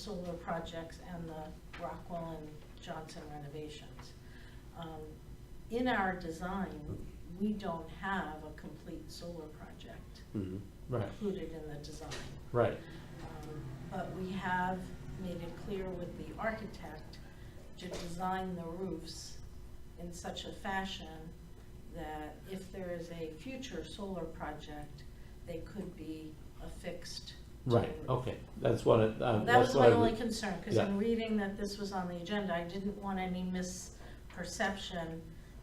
solar projects and the Rockwell and Johnson renovations. Um, In our design, we don't have a complete solar project Mhm. Right, included in the design. right, Um, But we have made it clear with the architect to design the roofs in such a fashion that if there is a future solar project, they could be affixed to the right, roof. okay, that's what, it- um, That that's was my what, only I- concern, because Yeah. in reading that this was on the agenda, I didn't want any misperception.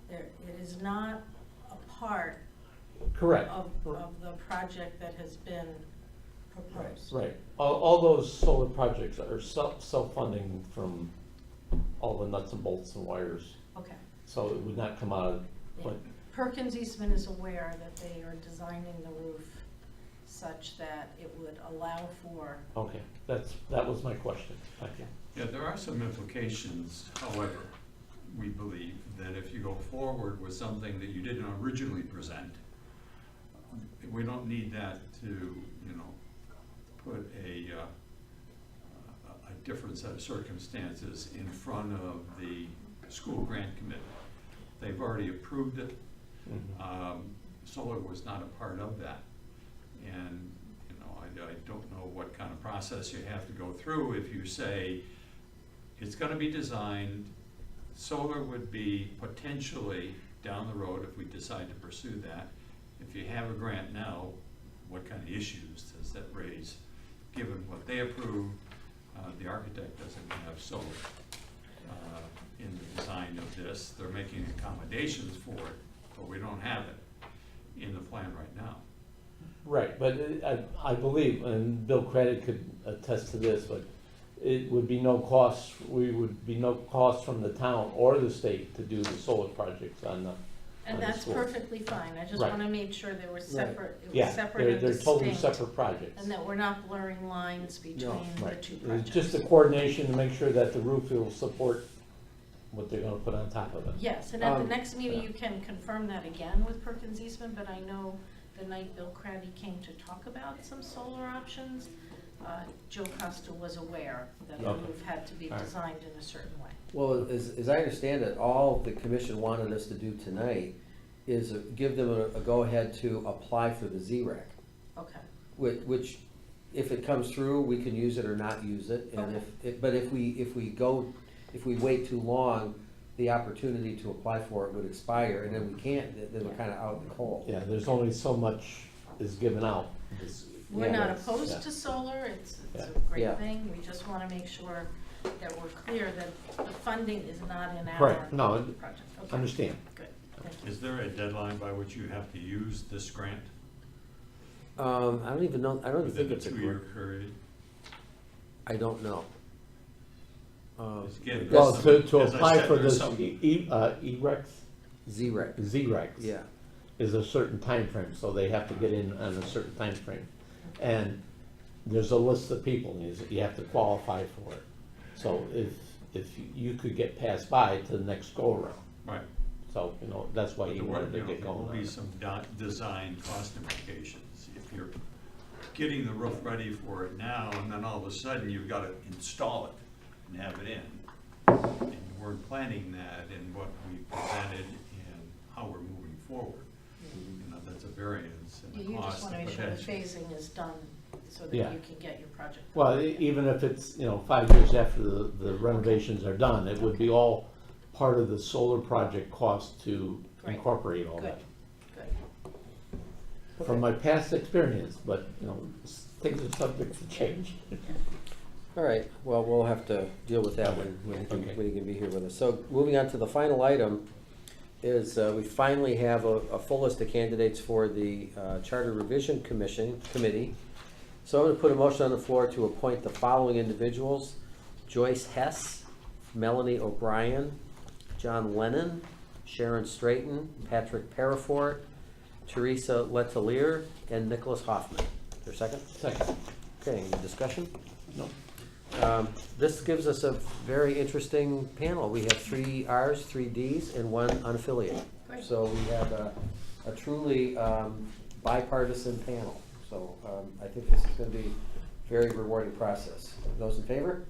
There, it is not a part correct, of, of the project that has been proposed. right. All, all those solar projects are self, self-funding from all the nuts and bolts and wires, Okay. so it would not come out of, but, Perkins Eastman is aware that they are designing the roof such that it would allow for, okay, that's, that was my question, thank you. Yeah, there are some implications, however, we believe that if you go forward with something that you didn't originally present, we don't need that to, you know, put a, uh, a- a different set of circumstances in front of the school grant committee. They've already approved it, Mhm. um, solar was not a part of that. And, you know, I, I don't know what kind of process you have to go through if you say, it's gonna be designed, solar would be potentially down the road if we decide to pursue that. If you have a grant now, what kind of issues does that raise, given what they approved? Uh, the architect doesn't have solar, uh, in the design of this, they're making accommodations for it, but we don't have it in the plan right now. Right, but it- I, I believe, and Bill Craddock could attest to this, but it would be no cost, we would be no cost from the town or the state to do the solar projects on the, and On the that's school. perfectly fine. I just Right. want to make sure they were separate, it was yeah, separate they're, and they're totally distinct. separate projects. And that we're not blurring lines between the Right, two it's projects. just the coordination to make sure that the roof will support what they're gonna put on top of it. Yes, and at the Um, next meeting, yeah. you can confirm that again with Perkins Eastman, but I know the night Bill Craddy came to talk about some solar options, uh, Joe Costa was aware that the Okay. roof had to be All right. designed in a certain way. Well, as, as I understand it, all the commission wanted us to do tonight is give them a, a go-ahead to apply for the ZRAC, Okay, which, which, if it comes through, we can use it or not use it. And if, it- but if we, if we go, if we wait too long, the opportunity to apply for it would expire, and then we can't, then- then we're kind of out in the cold. Yeah, there's only so much is given out. It's- we're Yeah, not that's- opposed yeah. to solar, it's, it's a Yeah. great Yeah. thing, we just wanna make sure that we're clear that the funding is not in our Right, project. no, I Okay, Understand, Good, thank you. Is there a deadline by which you have to use this grant? Um, I don't even know, I don't even Within think a it's a two-year group. period? I don't know. Um, Again, well, there's to, some- to as I apply said, for there's this some- E, E- uh, E-Rex, ZRAC, Z-Rex. yeah. is a certain time frame, so they have to get in on a certain time frame, And there's a list of people, and you- you have to qualify for it. So if, if you could get passed by to the next go-around, Right. so, you know, that's why But you there wanted to will- you know, get going There on will be it. some di- design cost implications. If you're getting the roof ready for it now, and then all of a sudden you've got to install it and have it in. And we weren't planning that in what we presented and how we're moving forward. You know, that's a variance You in the you just cost. wanna and make sure the potential. phasing is done, so that Yeah. you can get your project. Well, e- even if it's, you know, five years after the the renovations are done, it would be all part of the solar project cost to Great. incorporate all Good, that. good. From my past experience, but, you know, s- things are subject to change. All right, well, we'll have to deal with that when, when he can- when he can be here with us. So moving on to the final item is uh, we finally have a, a full list of candidates for the uh, Charter Revision Commission, Committee. So I'm going to put a motion on the floor to appoint the following individuals. Joyce Hess, Melanie O'Brien, John Lennon, Sharon Straighton, Patrick Parafort, Teresa Letelier, and Nicholas Hoffman. Is there a second? Second, Okay, any discussion? no, Um, This gives us a very interesting panel. We have three Rs, three Ds, and one unaffiliated. Great. So we have a a truly um, bipartisan panel. So um, I think this is going to be a very rewarding process. Those in favor?